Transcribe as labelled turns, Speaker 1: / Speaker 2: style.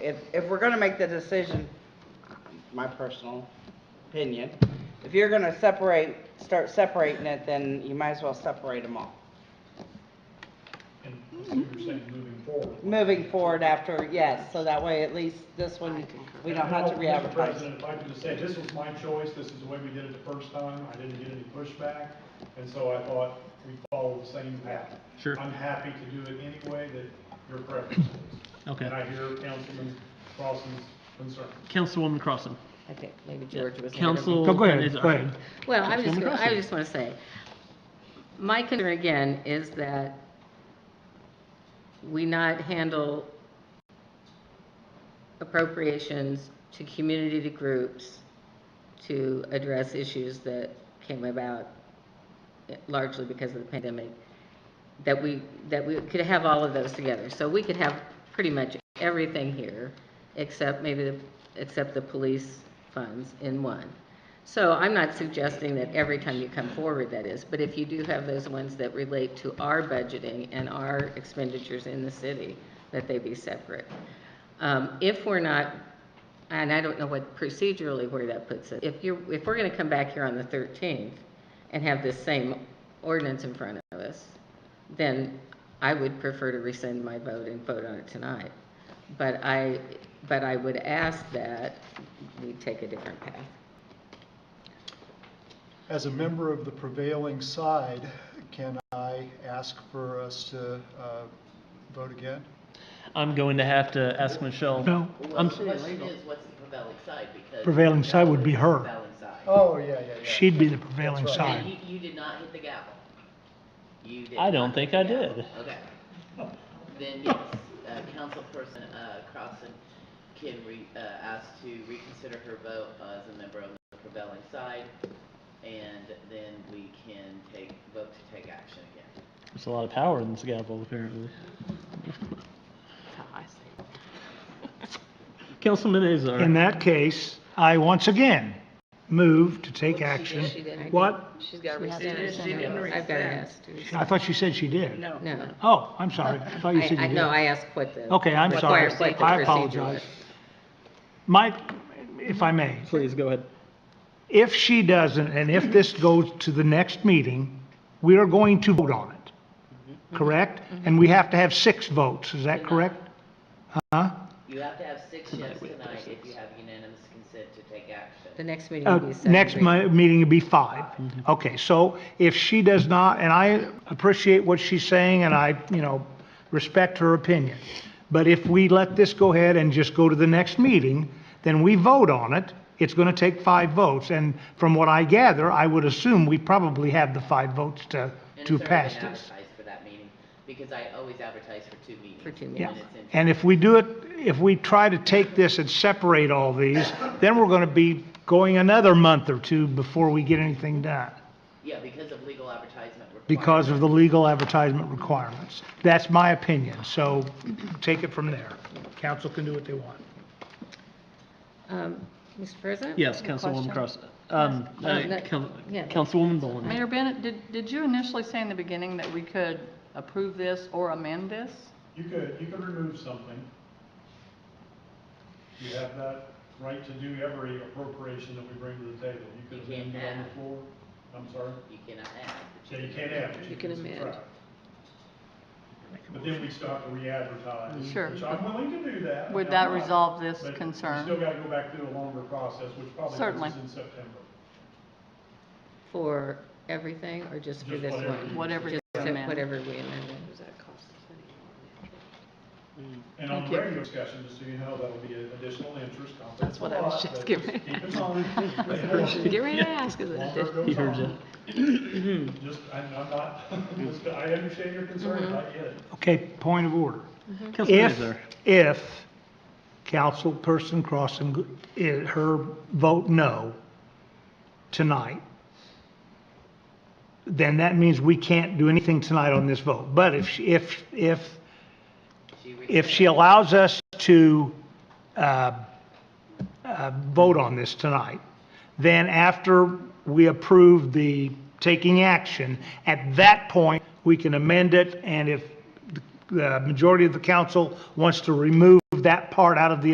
Speaker 1: if, if we're gonna make the decision, my personal opinion, if you're gonna separate, start separating it, then you might as well separate them all.
Speaker 2: And so you're saying moving forward.
Speaker 1: Moving forward after, yes, so that way at least this one, we don't have to
Speaker 2: And, Mr.
Speaker 1: re-advertise.
Speaker 2: President, if I could just say, this was my choice, this is the way we did it the first time, I didn't get any pushback, and so I thought we'd follow the same path.
Speaker 3: Sure.
Speaker 2: I'm happy to do it any way that your preference is.
Speaker 3: Okay.
Speaker 2: And I hear Councilman Crossan's concern.
Speaker 3: Councilwoman Crossen.
Speaker 4: I think maybe George was. ahead of me.
Speaker 3: Council.
Speaker 5: Go- go ahead,
Speaker 3: and is-
Speaker 5: go ahead.
Speaker 4: Well, I was just,
Speaker 3: Councilwoman
Speaker 4: gonna- I
Speaker 3: Crossen.
Speaker 4: just want to say, my concern again is that we not handle appropriations to community to groups to address issues that came about largely because of the pandemic, that we, that we could have all of those together. So we could have pretty much everything here, except maybe, the except the police funds in one. So I'm not suggesting that every time you come forward that is, but if you do have those ones that relate to our budgeting and our expenditures in the city, that they be separate. Um, If we're not, and I don't know what procedurally where that puts it, if you're, if we're going to come back here on the 13th and have this same ordinance in front of us, then I would prefer to rescind my vote and vote on it tonight. But I, but I would ask that we take a different path.
Speaker 6: As a member of the prevailing side, can I ask for us to uh, vote again?
Speaker 3: I'm going to have to ask Michelle.
Speaker 5: No.
Speaker 3: I'm,
Speaker 7: The question is, what's the prevailing side, because.
Speaker 5: Prevailing
Speaker 7: that
Speaker 5: side would
Speaker 7: was
Speaker 5: be
Speaker 7: the
Speaker 5: her.
Speaker 7: Prevailing side.
Speaker 6: Oh, yeah, yeah, yeah.
Speaker 5: She'd be the prevailing
Speaker 6: That's
Speaker 7: And
Speaker 5: side.
Speaker 7: you, you did not hit the gavel. You did.
Speaker 3: I don't
Speaker 7: not
Speaker 3: think
Speaker 7: hit the
Speaker 3: I
Speaker 7: gavel.
Speaker 3: did.
Speaker 7: Okay. Then, yes, uh, councilperson, uh, Crossan can re, uh, ask to reconsider her vote as a member of the prevailing side, and then we can take, vote to take action again.
Speaker 3: there's a lot of power in this gavel, apparently. Councilman Azar.
Speaker 5: In that case, I once again move to take
Speaker 4: She did,
Speaker 5: action.
Speaker 4: she did.
Speaker 5: What?
Speaker 4: She's got to
Speaker 1: rescind it. She didn't
Speaker 4: I've got to
Speaker 1: rescind.
Speaker 4: ask. to rescind.
Speaker 5: I thought she said she did.
Speaker 1: No.
Speaker 4: No.
Speaker 5: Oh, I'm sorry. I thought you
Speaker 4: I,
Speaker 5: said
Speaker 4: I
Speaker 5: you did.
Speaker 4: know, I asked what the.
Speaker 5: Okay, I'm
Speaker 4: what
Speaker 5: sorry.
Speaker 4: the- what the
Speaker 5: I
Speaker 4: procedure
Speaker 5: apologize.
Speaker 4: was.
Speaker 5: Mike, if I may,
Speaker 3: Please, go ahead.
Speaker 5: if she doesn't, and if this goes to the next meeting, we are going to vote on it,
Speaker 4: Mm-hmm.
Speaker 5: correct? And we have to have six votes, is that correct? Uh-huh.
Speaker 7: You have to have six yes tonight if you have unanimous consent to take action.
Speaker 4: The next meeting
Speaker 5: Uh,
Speaker 4: will be seven.
Speaker 5: Next
Speaker 4: weeks.
Speaker 5: mi- meeting will be five.
Speaker 7: Mm-hmm.
Speaker 5: Okay, so if she does not, and I appreciate what she's saying, and I, you know, respect her opinion, but if we let this go ahead and just go to the next meeting, then we vote on it, it's going to take five votes, and from what I gather, I would assume we probably have the five votes to,
Speaker 7: And
Speaker 5: to
Speaker 7: it's already
Speaker 5: pass
Speaker 7: been
Speaker 5: this.
Speaker 7: advertised for that meeting, because I always advertise for two meetings.
Speaker 4: For two
Speaker 7: and
Speaker 4: meetings.
Speaker 7: it's in-
Speaker 5: And if we do it, if we try to take this and separate all these, then we're going to be going another month or two before we get anything done.
Speaker 7: Yeah, because of legal advertisement requirements.
Speaker 5: because of the legal advertisement requirements. That's my opinion, so take it from there. Council can do what they want.
Speaker 4: Um, Mr. President?
Speaker 3: Yes, Councilwoman Cross. Um, uh,
Speaker 8: Oh, that-
Speaker 3: Coun-
Speaker 4: yeah.
Speaker 3: Councilwoman Boland.
Speaker 8: Mayor Bennett, did, did you initially say in the beginning that we could approve this or amend this?
Speaker 2: You could, you could remove something. You have that right to do every appropriation that we bring to the table. You could
Speaker 7: You can't
Speaker 2: amend it on
Speaker 7: add.
Speaker 2: the floor. I'm sorry?
Speaker 7: You cannot add.
Speaker 2: Yeah, you can't add, but you can subtract. But then we still have to re-advertise.
Speaker 8: Sure.
Speaker 2: Which I'm willing to do that.
Speaker 8: Would
Speaker 2: I'm
Speaker 8: that
Speaker 2: not,
Speaker 8: resolve this
Speaker 2: but
Speaker 8: concern?
Speaker 2: we still got to go back through a longer process, which probably
Speaker 8: Certainly.
Speaker 2: puts us in September.
Speaker 4: For everything or just for
Speaker 2: Just
Speaker 4: this
Speaker 2: whatever
Speaker 4: one?
Speaker 2: you-
Speaker 8: Whatever
Speaker 4: Just
Speaker 8: you amend.
Speaker 4: whatever we amended.
Speaker 2: And on the radio discussion, just so you know, that'll be an additional interest. That's what I was just giving. Keep in mind.
Speaker 8: Get ready to ask, is
Speaker 2: Longer
Speaker 3: He
Speaker 2: it
Speaker 3: heard
Speaker 2: goes
Speaker 3: you.
Speaker 2: on. Just, I'm I'm not, I understand your concerns, I get it.
Speaker 5: Okay, point of order.
Speaker 3: Councilman
Speaker 5: If,
Speaker 3: Azar.
Speaker 5: if Councilperson Crossen, i- eh, her vote no tonight, then that means we can't do anything tonight on this vote. But if, she- if, if if she allows us to uh, uh, vote on this tonight, then after we approve the taking action, at that point, we can amend it, and if the- the majority of the council wants to remove that part out of the